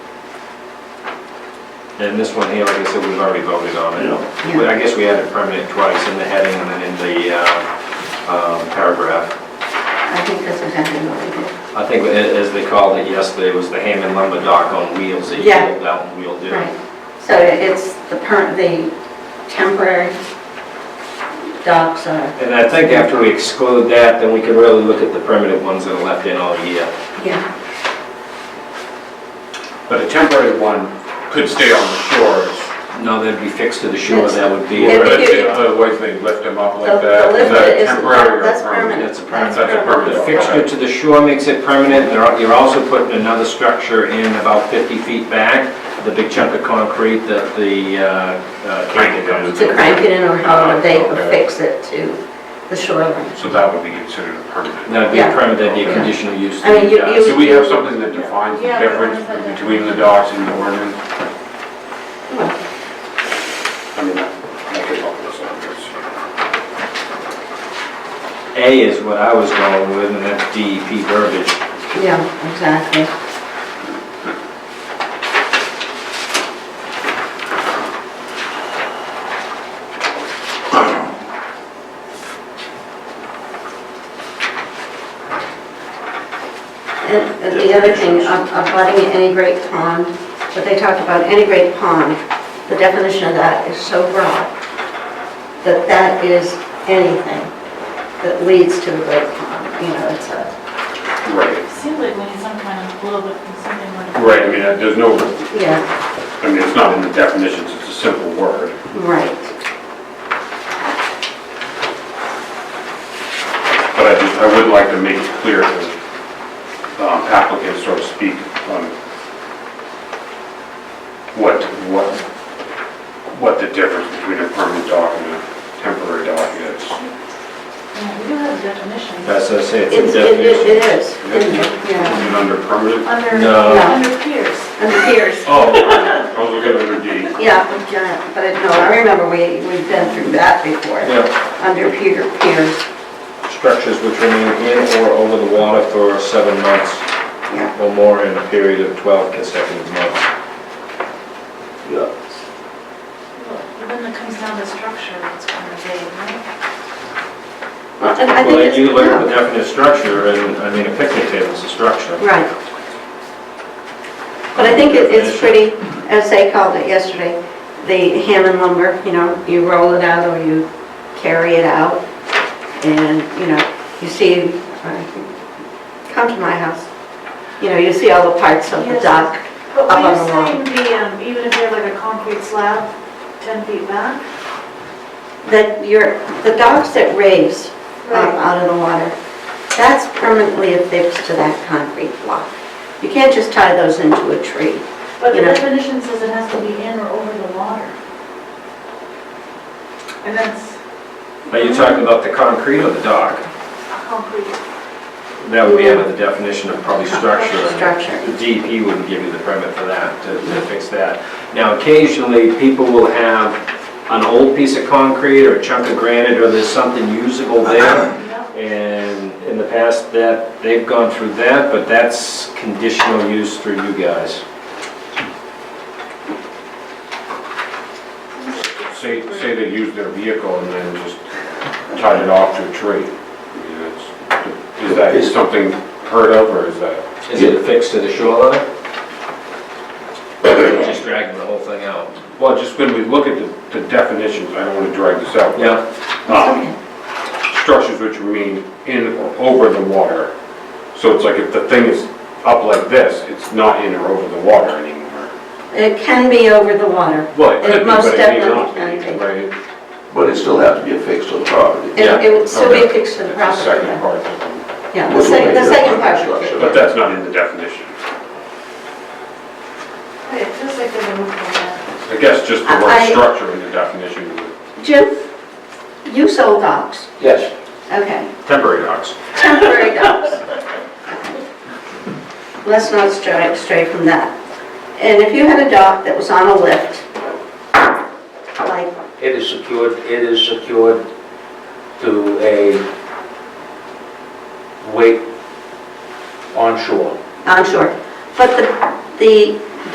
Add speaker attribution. Speaker 1: And this one here, like I said, we've already voted on it.
Speaker 2: Yeah.
Speaker 1: Well, I guess we added permanent twice in the heading and then in the uh, um, paragraph.
Speaker 2: I think that's exactly what we did.
Speaker 1: I think a- as they called it yesterday, it was the Hammond lumber dock on wheels that you
Speaker 2: Yeah.
Speaker 1: pulled out and wheeled in.
Speaker 2: Right. So it's the per, the temporary docks are,
Speaker 1: And I think after we exclude that, then we can really look at the permanent ones that are left in all year.
Speaker 2: yeah,
Speaker 3: But a temporary one could stay on the shores.
Speaker 1: No, they'd be fixed to the shore,
Speaker 2: Yes.
Speaker 1: that would be,
Speaker 2: Yeah.
Speaker 3: But it- Otherwise, they lift them up
Speaker 2: The-
Speaker 3: like
Speaker 2: the
Speaker 3: that. Is that
Speaker 2: lift is-
Speaker 3: temporary or
Speaker 1: that's
Speaker 2: that's
Speaker 1: a
Speaker 3: That's
Speaker 1: permanent.
Speaker 3: a
Speaker 1: The
Speaker 3: permanent.
Speaker 1: fixture to the shore makes it permanent, There are- you're also putting another structure in about 50 feet back, the big chunk of concrete that the uh, uh, cable goes
Speaker 2: to crank it in or however they
Speaker 3: Oh, Okay.
Speaker 2: affix it to the shoreline.
Speaker 3: So that would be considered a permanent.
Speaker 1: That'd be
Speaker 2: Yeah.
Speaker 1: a permit, that'd be a
Speaker 3: Okay.
Speaker 1: conditional use.
Speaker 2: I mean, you-
Speaker 1: Uh,
Speaker 2: you-
Speaker 3: So we have something that defines the
Speaker 4: Yeah, we wanna
Speaker 3: difference
Speaker 4: put that.
Speaker 3: between the docks and the ordinance?
Speaker 2: Well,
Speaker 3: I mean, that, that could help us out, yes.
Speaker 1: A is what I was going with, and that's DEP verbiage.
Speaker 2: Yeah, exactly. And and the other thing, ab- abutting any great pond, but they talked about any great pond, the definition of that is so broad that that is anything that leads to the great pond, you know, it's a,
Speaker 3: Right,
Speaker 4: Seems like we need some kind of little bit, something more.
Speaker 3: right, I mean, that- there's no,
Speaker 2: yeah,
Speaker 3: I mean, it's not in the definitions, it's a simple word.
Speaker 2: right.
Speaker 3: But I just, I would like to make it clear that um, applicants sort of speak on what, what, what the difference between a permanent dock and a temporary dock is.
Speaker 4: Yeah, We do have definitions.
Speaker 1: That's, what I say, it's
Speaker 2: It's,
Speaker 1: a
Speaker 2: it
Speaker 1: definition.
Speaker 2: it- it is, yeah,
Speaker 3: Is it under permanent?
Speaker 4: Under,
Speaker 1: No.
Speaker 4: under peers.
Speaker 2: and the piers,
Speaker 3: Oh, I was looking at under D.
Speaker 2: yeah, but, uh, but no, I remember we, we've been through that before,
Speaker 1: Yeah,
Speaker 2: under Peter Piers,
Speaker 1: structures which remain in or over the water for seven months
Speaker 2: yeah.
Speaker 1: or more in a period of 12 consecutive months.
Speaker 4: Well, When it comes down to structure, it's kind of vague, right?
Speaker 2: Well, and I
Speaker 1: Well,
Speaker 2: think
Speaker 1: then
Speaker 2: it's,
Speaker 1: you look at the
Speaker 2: no,
Speaker 1: definite structure, and, I mean, a picnic table's a structure.
Speaker 2: right. But I think it- it's pretty, as they called it yesterday, the Hammond lumber, you know, you roll it out or you carry it out, and, you know, you see, uh, come to my house, you know, you see all the parts of the
Speaker 4: Yes.
Speaker 2: dock
Speaker 4: But
Speaker 2: Up on
Speaker 4: were you
Speaker 2: the wall.
Speaker 4: saying the, um, even if they're like a concrete slab, 10 feet back?
Speaker 2: that your, the docks that raise up out of the water, that's permanently affixed to that concrete block. You can't just tie those into a tree.
Speaker 4: But the
Speaker 2: you know.
Speaker 4: definition says it has to be in or over the water. And that's
Speaker 1: Are you talking about the concrete or the dock?
Speaker 4: concrete.
Speaker 1: That would be under the definition of probably structure.
Speaker 2: Structure.
Speaker 1: The DEP wouldn't give you the permit for that, to to fix that. Now, occasionally, people will have an old piece of concrete or a chunk of granite, or there's something usable there.
Speaker 4: Yep.
Speaker 1: And in the past, that, they've gone through that, but that's conditional use through you guys.
Speaker 3: Say, say they used their vehicle and then just tied it off to a tree. I mean, that's- Is that something heard of, or is that?
Speaker 1: Is it affixed to the shoreline? Or they're Just dragging the whole thing out?
Speaker 3: Well, just when we look at the- the definitions, I don't want to drag this out. but
Speaker 1: Yeah.
Speaker 3: um, structures which remain in or over the water. So it's like if the thing is up like this, it's not in or over the water anymore.
Speaker 2: It can be over the water.
Speaker 3: Well, it
Speaker 2: It
Speaker 3: could be,
Speaker 2: most
Speaker 3: but it may not
Speaker 2: definitely
Speaker 3: be,
Speaker 2: can be.
Speaker 3: right?
Speaker 5: But it still has to be affixed to the property.
Speaker 2: It
Speaker 1: Yeah,
Speaker 2: it would still be
Speaker 3: okay.
Speaker 2: affixed to the
Speaker 3: That's the
Speaker 2: property.
Speaker 3: second
Speaker 2: yeah.
Speaker 3: part. of it.
Speaker 2: Yeah, the
Speaker 5: Which will
Speaker 2: second, the
Speaker 5: make it a
Speaker 2: second
Speaker 5: permanent
Speaker 2: part. would be-
Speaker 5: structure.
Speaker 3: But that's not in the definition.
Speaker 4: Wait, It feels like they're moving that.
Speaker 3: I guess just the
Speaker 2: I-
Speaker 3: word structure in the definition would
Speaker 2: Jim, you sold docks,
Speaker 5: Yes.
Speaker 2: okay,
Speaker 1: Temporary docks.
Speaker 2: temporary docks. Let's not stray, stray from that. And if you had a dock that was on a lift, like
Speaker 6: It is secured, it is secured to a weight onshore.
Speaker 2: onshore. But the, the